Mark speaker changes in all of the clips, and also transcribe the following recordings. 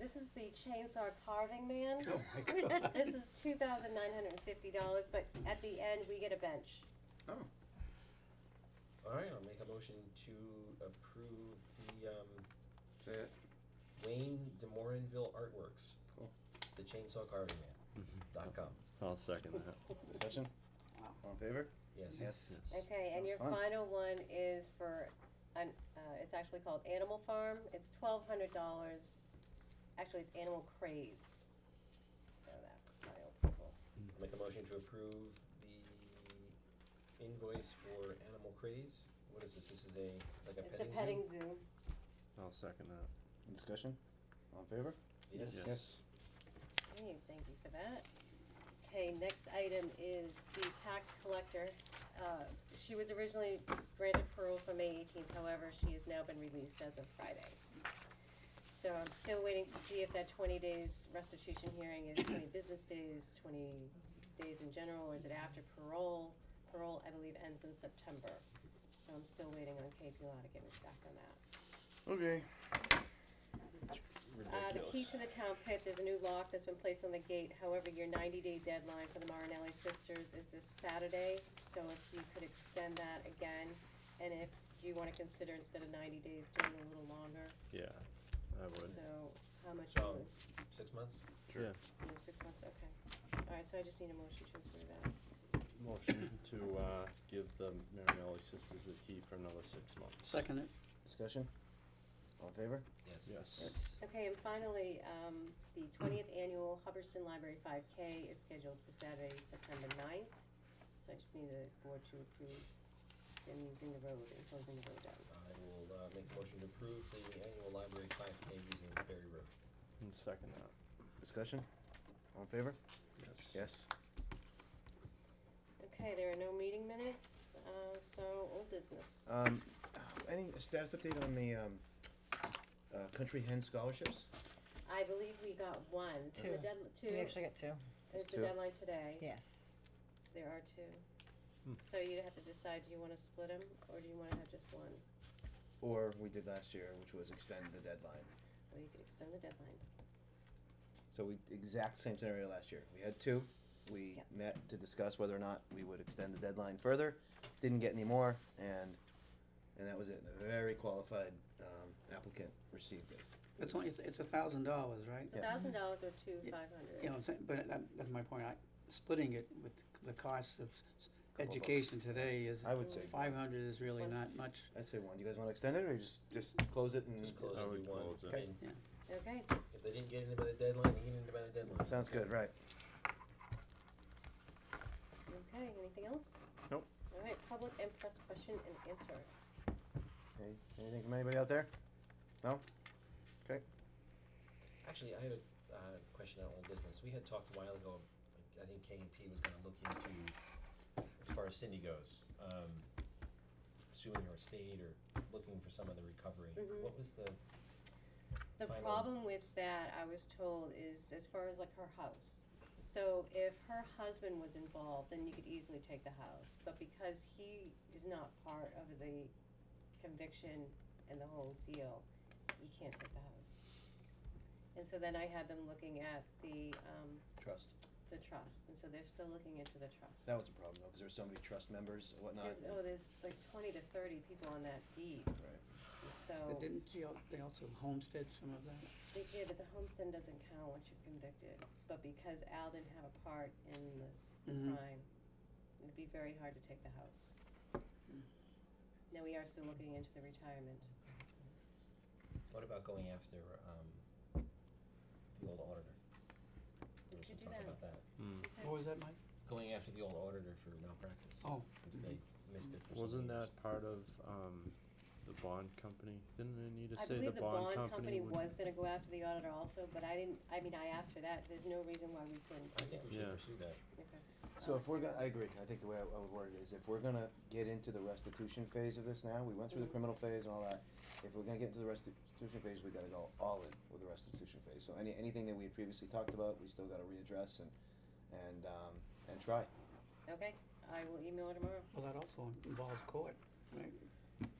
Speaker 1: this is the chainsaw carving man.
Speaker 2: Oh my god.
Speaker 1: This is two thousand nine hundred and fifty dollars, but at the end, we get a bench.
Speaker 3: Alright, I'll make a motion to approve the um
Speaker 2: Is that-
Speaker 3: Wayne DeMorinville Artworks.
Speaker 2: Cool.
Speaker 3: The Chainsaw Carving Man dot com,
Speaker 4: I'll second that.
Speaker 2: Discussion? All in favor?
Speaker 3: yes.
Speaker 2: Yes.
Speaker 1: Okay, and
Speaker 2: Sounds
Speaker 1: your
Speaker 2: fun.
Speaker 1: final one is for, an, uh, it's actually called Animal Farm, it's twelve hundred dollars, actually, it's Animal Craze. So that was my approval.
Speaker 3: I'll Make a motion to approve the invoice for Animal Craze, what is this, this is a, like a petting zoo?
Speaker 1: It's a petting zoo,
Speaker 4: I'll second that.
Speaker 2: Discussion? All in favor?
Speaker 3: Yes.
Speaker 4: Yes.
Speaker 1: Okay, thank you for that. Okay, next item is the tax collector. Uh, she was originally granted parole for May eighteenth, however, she has now been released as of Friday. So I'm still waiting to see if that twenty days restitution hearing is twenty business days, twenty days in general, or is it after parole? Parole, I believe, ends in September, so I'm still waiting on KP Law to get me back on that.
Speaker 2: Okay.
Speaker 1: Uh, the key to the town pit, there's a new lock that's been placed on the gate, however, your ninety-day deadline for the Marinelli sisters is this Saturday, so if you could extend that again, and if, do you wanna consider instead of ninety days, doing a little longer?
Speaker 4: Yeah, I would.
Speaker 1: So, how much, you
Speaker 3: So,
Speaker 1: would-
Speaker 3: Um, six months?
Speaker 4: Sure.
Speaker 1: you know, six months, okay. Alright, so I just need a motion to approve that.
Speaker 4: Motion to, uh, give the Marinelli sisters the key for another six months.
Speaker 5: Second it.
Speaker 2: Discussion? All in favor?
Speaker 3: Yes.
Speaker 4: Yes.
Speaker 2: Yes.
Speaker 1: Okay, and finally, um, the twentieth annual Hubbardston Library five K is scheduled for Saturday, September 9th. So I just need the board to approve them using the road and closing the road down.
Speaker 3: I will, uh, make a motion to approve the annual library five K using Berry Road.
Speaker 4: And second that.
Speaker 2: Discussion? All in favor?
Speaker 4: Yes.
Speaker 2: Yes.
Speaker 1: Okay, there are no meeting minutes, uh, so old business.
Speaker 4: Uh.
Speaker 2: Um, any status update on the, um, uh, country hen scholarships?
Speaker 1: I believe we got one, the
Speaker 6: Two.
Speaker 1: deadl- two,
Speaker 6: We actually got two.
Speaker 1: it's the
Speaker 2: two.
Speaker 1: deadline today,
Speaker 6: Yes.
Speaker 1: there are two.
Speaker 4: Hmm.
Speaker 1: So you'd have to decide, do you wanna split them, or do you wanna have just one,
Speaker 2: Or we did last year, which was extend the deadline.
Speaker 1: or you could extend the deadline?
Speaker 2: So we, exact same scenario last year. We had two. We
Speaker 1: Yeah.
Speaker 2: met to discuss whether or not we would extend the deadline further. Didn't get any more, and and that was it. A very qualified um, applicant received it.
Speaker 5: It's only, it's- it's a thousand dollars, right?
Speaker 1: It's a thousand dollars or two five hundred.
Speaker 5: You know, what I'm saying? but that, that's my point, I, splitting it with the cost of s-
Speaker 2: bucks.
Speaker 5: education today is,
Speaker 2: I would say
Speaker 5: five hundred is really
Speaker 1: Slim.
Speaker 5: not much.
Speaker 2: I'd say one. Do you guys want to extend it or just just close it and
Speaker 3: Just close
Speaker 4: I
Speaker 3: it,
Speaker 4: would
Speaker 3: do one,
Speaker 4: close it.
Speaker 3: and
Speaker 1: Okay,
Speaker 3: if they didn't get in by the deadline, they get in by the deadline.
Speaker 2: Sounds good, right?
Speaker 1: okay, anything else?
Speaker 4: Nope.
Speaker 1: All right, public and press question and answer.
Speaker 2: Any, anything from anybody out there?
Speaker 3: Actually, I have a uh, question on old business. We had talked a while ago, like, I think K and P was gonna look into, as far as Cindy goes, um, suing her estate or looking for some other recovery.
Speaker 1: Mhm.
Speaker 3: What was the,
Speaker 1: The
Speaker 3: Final.
Speaker 1: problem with that, I was told, is as far as like her house. So if her husband was involved, then you could easily take the house, but because he is not part of the conviction and the whole deal, you can't take the house. And so then I had them looking at the, um,
Speaker 2: Trust.
Speaker 1: the trust, and so they're still looking into the trust.
Speaker 2: That was a problem though, because there were so many trust members and whatnot.
Speaker 1: There's, oh, there's like twenty to thirty people on that deed,
Speaker 2: Right.
Speaker 1: so,
Speaker 5: But didn't you, al- they also homestead some of that?
Speaker 1: yeah, but the homestead doesn't count once you're convicted, but because Al didn't have a part in this
Speaker 4: Mm-hmm.
Speaker 5: Mhm.
Speaker 1: crime, it'd be very hard to take the house.
Speaker 5: Mm.
Speaker 1: Now, we are still looking into the retirement.
Speaker 3: what about going after, um, the old auditor? There was
Speaker 1: Could
Speaker 3: some
Speaker 1: do
Speaker 3: talk
Speaker 1: that.
Speaker 3: about that.
Speaker 4: Mm.
Speaker 5: What was that, Mike?
Speaker 3: Going after the old auditor for malpractice,
Speaker 5: Oh,
Speaker 3: since they missed it for some
Speaker 4: Wasn't
Speaker 3: years.
Speaker 4: that part of, um, the bond company? Didn't they need to
Speaker 1: I
Speaker 4: say the
Speaker 1: believe the
Speaker 4: bond
Speaker 1: bond
Speaker 4: company
Speaker 1: company
Speaker 4: would?
Speaker 1: was gonna go after the auditor also, but I didn't, I mean, I asked for that, there's no reason why we couldn't.
Speaker 3: I think we should
Speaker 4: Yeah.
Speaker 3: pursue that.
Speaker 1: Okay.
Speaker 2: So if we're gonna, I agree, I think the way I I would word it is, if we're gonna get into the restitution phase of this now, we went through the
Speaker 1: Mhm.
Speaker 2: criminal phase and all that. If we're gonna get into the restitution phase, we gotta go all in with the restitution phase, so any, anything that we had previously talked about, we still gotta readdress and, and, um, and try.
Speaker 1: Okay, I will email her tomorrow.
Speaker 5: Well, that also involves court, right?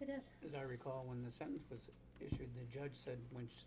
Speaker 1: It does.
Speaker 5: As I recall, when the sentence was issued, the judge said, when sh-